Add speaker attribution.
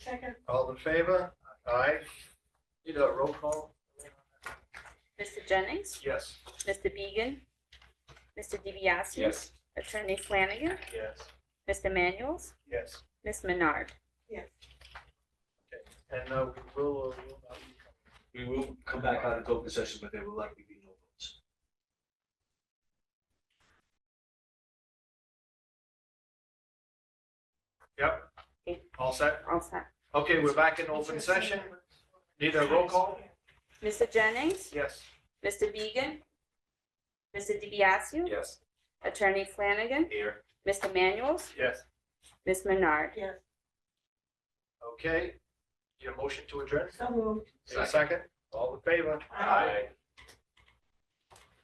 Speaker 1: Second.
Speaker 2: All in favor? Aye. Need a roll call?
Speaker 3: Mr. Jennings,
Speaker 2: Yes.
Speaker 3: Mr. Beegan, Mr. DiBiase.
Speaker 4: Yes.
Speaker 3: Attorney Flanagan,
Speaker 2: Yes.
Speaker 3: Mr. Manuel's,
Speaker 2: Yes.
Speaker 3: Ms. Menard.
Speaker 2: And uh, we will, or will not be
Speaker 4: We will come back out of open session, but there will likely be no votes.
Speaker 2: all set?
Speaker 3: All set.
Speaker 2: Okay, we're back in open session. Need a roll call?
Speaker 3: Mr. Jennings,
Speaker 2: Yes.
Speaker 3: Mr. Beegan, Mr. DiBiase.
Speaker 4: Yes.
Speaker 3: Attorney Flanagan,
Speaker 4: Here.
Speaker 3: Mr. Manuel's,
Speaker 2: Yes.
Speaker 3: Ms. Menard.
Speaker 1: Yes,
Speaker 2: Okay. Your motion to adjourn?
Speaker 1: so moved.
Speaker 2: Need a second? All in favor?
Speaker 1: Aye.